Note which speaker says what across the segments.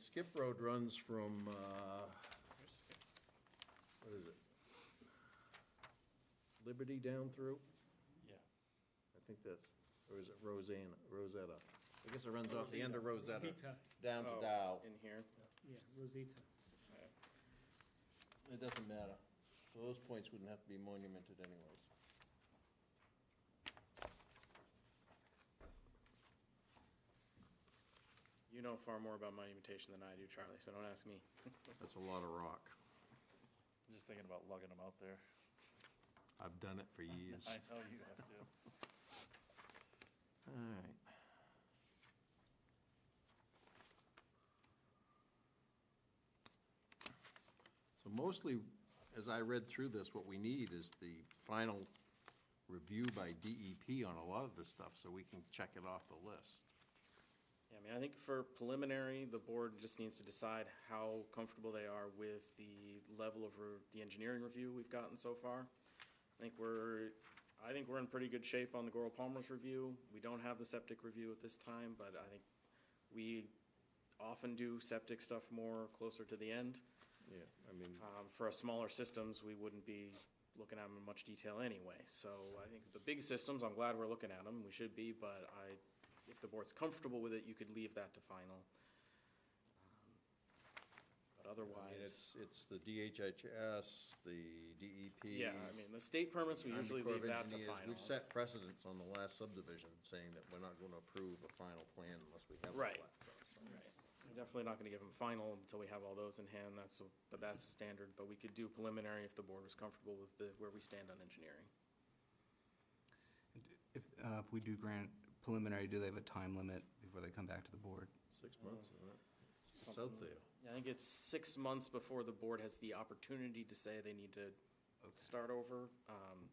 Speaker 1: Skip Road runs from, uh, what is it? Liberty down through?
Speaker 2: Yeah.
Speaker 1: I think that's, or is it Rosanna, Rosetta? I guess it runs off the end of Rosetta,
Speaker 3: Rosita,
Speaker 1: down to Dow.
Speaker 4: In here.
Speaker 3: yeah, Rosita.
Speaker 1: It doesn't matter. So those points wouldn't have to be monumented anyways.
Speaker 4: You know far more about monumentation than I do, Charlie, so don't ask me.
Speaker 1: That's a lot of rock.
Speaker 2: I'm Just thinking about lugging them out there.
Speaker 1: I've done it for years.
Speaker 2: I know you have to.
Speaker 1: All right. So mostly, as I read through this, what we need is the final review by DEP on a lot of this stuff, so we can check it off the list.
Speaker 4: Yeah, I mean, I think for preliminary, the board just needs to decide how comfortable they are with the level of re- the engineering review we've gotten so far. I think we're, I think we're in pretty good shape on the Goral Palmer's review. We don't have the septic review at this time, but I think we often do septic stuff more closer to the end.
Speaker 1: Yeah, I mean.
Speaker 4: Um, For our smaller systems, we wouldn't be looking at them in much detail anyway. So I think the big systems, I'm glad we're looking at them, we should be, but I, if the board's comfortable with it, you could leave that to final. Um, But otherwise,
Speaker 1: It's, it's the DHHS, the DEP.
Speaker 4: yeah, I mean, the state permits, we
Speaker 1: Army
Speaker 4: usually
Speaker 1: Corps of
Speaker 4: leave that to
Speaker 1: Engineers.
Speaker 4: final.
Speaker 1: We've set precedents on the last subdivision, saying that we're not gonna approve a final plan unless we have. all
Speaker 4: Right.
Speaker 1: that stuff, so.
Speaker 4: We're Definitely not gonna give them final until we have all those in hand, that's, but that's standard, but we could do preliminary if the board was comfortable with the, where we stand on engineering.
Speaker 5: If, uh, if we do grant preliminary, do they have a time limit before they come back to the board?
Speaker 1: Six months, isn't it? It's out Oh, there.
Speaker 4: I think it's six months before the board has the opportunity to say they need to start over. Um,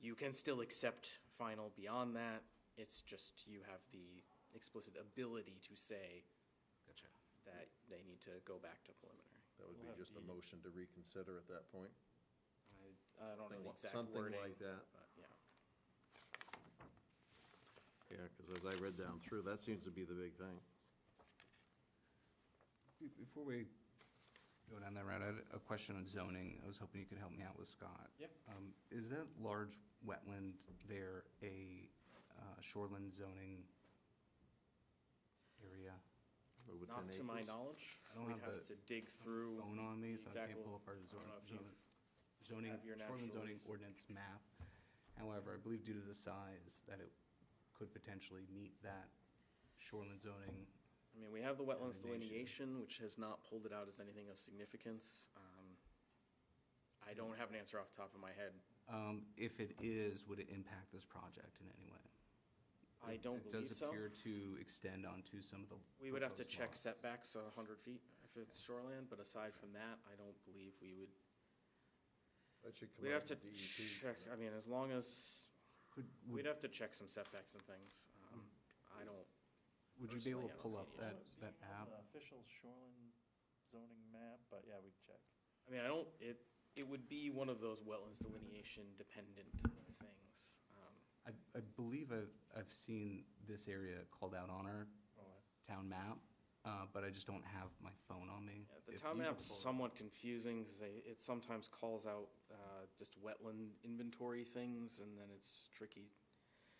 Speaker 4: You can still accept final beyond that, it's just you have the explicit ability to say
Speaker 5: Gotcha.
Speaker 4: that they need to go back to preliminary.
Speaker 1: That would
Speaker 2: We'll
Speaker 1: be
Speaker 2: have
Speaker 1: just
Speaker 2: to
Speaker 1: a
Speaker 2: eat.
Speaker 1: motion to reconsider at that point.
Speaker 4: I, I don't
Speaker 1: Something
Speaker 4: know the
Speaker 1: li-
Speaker 4: exact
Speaker 1: Something
Speaker 4: wording,
Speaker 1: like that.
Speaker 4: but yeah.
Speaker 1: Yeah, because as I read down through, that seems to be the big thing.
Speaker 5: Be- Before we go down that route, I had a question on zoning. I was hoping you could help me out with Scott.
Speaker 4: Yep.
Speaker 5: Um, Is that large wetland there a uh, shoreline zoning area?
Speaker 1: Or within
Speaker 4: Not to my
Speaker 1: acres.
Speaker 4: knowledge,
Speaker 5: I don't
Speaker 4: we'd
Speaker 5: have
Speaker 4: have to
Speaker 5: the
Speaker 4: dig through.
Speaker 5: Phone on me, so I
Speaker 4: exact
Speaker 5: can't
Speaker 4: lo-
Speaker 5: pull up our
Speaker 4: I
Speaker 5: zone-
Speaker 4: don't know if you-
Speaker 5: zone- zoning,
Speaker 4: have your
Speaker 5: shoreline zoning
Speaker 4: naturals.
Speaker 5: ordinance map. However, I believe due to the size, that it could potentially meet that shoreline zoning
Speaker 4: I mean, we have the wetlands
Speaker 5: Designation.
Speaker 4: delineation, which has not pulled it out as anything of significance. Um, I don't have an answer off the top of my head.
Speaker 5: Um, If it is, would it impact this project in any way?
Speaker 4: I
Speaker 5: It-
Speaker 4: don't believe
Speaker 5: It does
Speaker 4: so.
Speaker 5: appear to extend onto some of the.
Speaker 4: We would have to
Speaker 5: proposed
Speaker 4: check
Speaker 5: lots.
Speaker 4: setbacks a hundred feet if it's shoreland, but aside from that, I don't believe we would,
Speaker 1: That should come
Speaker 4: we'd
Speaker 1: out
Speaker 4: have
Speaker 1: of
Speaker 4: to
Speaker 1: DEP.
Speaker 4: check, I mean, as long as,
Speaker 5: Could,
Speaker 4: we'd
Speaker 5: E would, Hmm.
Speaker 4: have to check some setbacks and things. Um, I don't,
Speaker 5: would you be
Speaker 4: personally, I
Speaker 5: able to
Speaker 4: don't
Speaker 5: pull
Speaker 4: see
Speaker 5: up
Speaker 4: any
Speaker 5: that,
Speaker 2: Do you
Speaker 5: that
Speaker 2: have
Speaker 5: app?
Speaker 2: an Official shoreline zoning map, but yeah, we can check.
Speaker 4: I mean, I don't, it, it would be one of those wetlands delineation dependent things. Um,
Speaker 5: I, I believe I've, I've seen this area called out on our
Speaker 2: Oh, I-
Speaker 5: town map, uh, but I just don't have my phone on me.
Speaker 4: Yeah, The
Speaker 5: If
Speaker 4: town
Speaker 5: you could
Speaker 4: map's
Speaker 5: pull it-
Speaker 4: somewhat confusing, because it sometimes calls out uh, just wetland inventory things, and then it's tricky.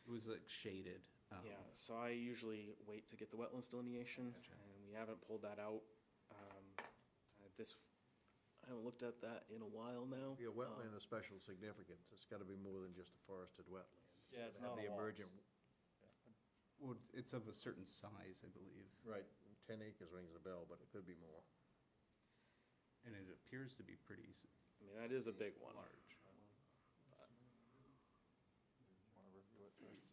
Speaker 5: It was like shaded. um,
Speaker 4: Yeah, so I usually wait to get the wetlands delineation,
Speaker 5: Gotcha.
Speaker 4: and we haven't pulled that out. Um, uh, This, I haven't looked at that in a while now.
Speaker 1: Yeah,
Speaker 4: Um,
Speaker 1: wetland of special significance. It's gotta be more than just a forested wetland.
Speaker 2: Yeah, it's
Speaker 1: Have
Speaker 2: not a
Speaker 1: The
Speaker 2: lot.
Speaker 1: emergent,
Speaker 5: Well, it's of a certain size, I believe,
Speaker 1: right, ten acres rings a bell, but it could be more.
Speaker 5: and it appears to be pretty s-
Speaker 4: I mean, that is a big one.
Speaker 5: large.
Speaker 2: Wanna review it first.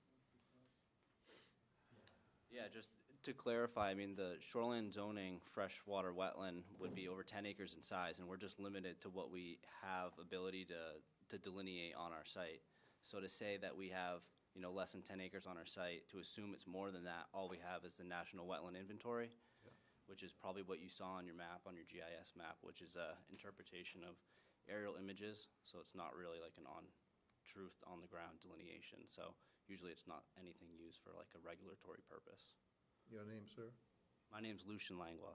Speaker 6: Yeah, just to clarify, I mean, the shoreline zoning freshwater wetland would be over ten acres in size, and we're just limited to what we have ability to, to delineate on our site. So to say that we have, you know, less than ten acres on our site, to assume it's more than that, all we have is the National Wetland Inventory, which is probably what you saw on your map, on your GIS map, which is a interpretation of aerial images, so it's not really like an on, truth on the ground delineation, so usually it's not anything used for like a regulatory purpose.
Speaker 1: Your name, sir?
Speaker 6: My name's Lucian Langlois.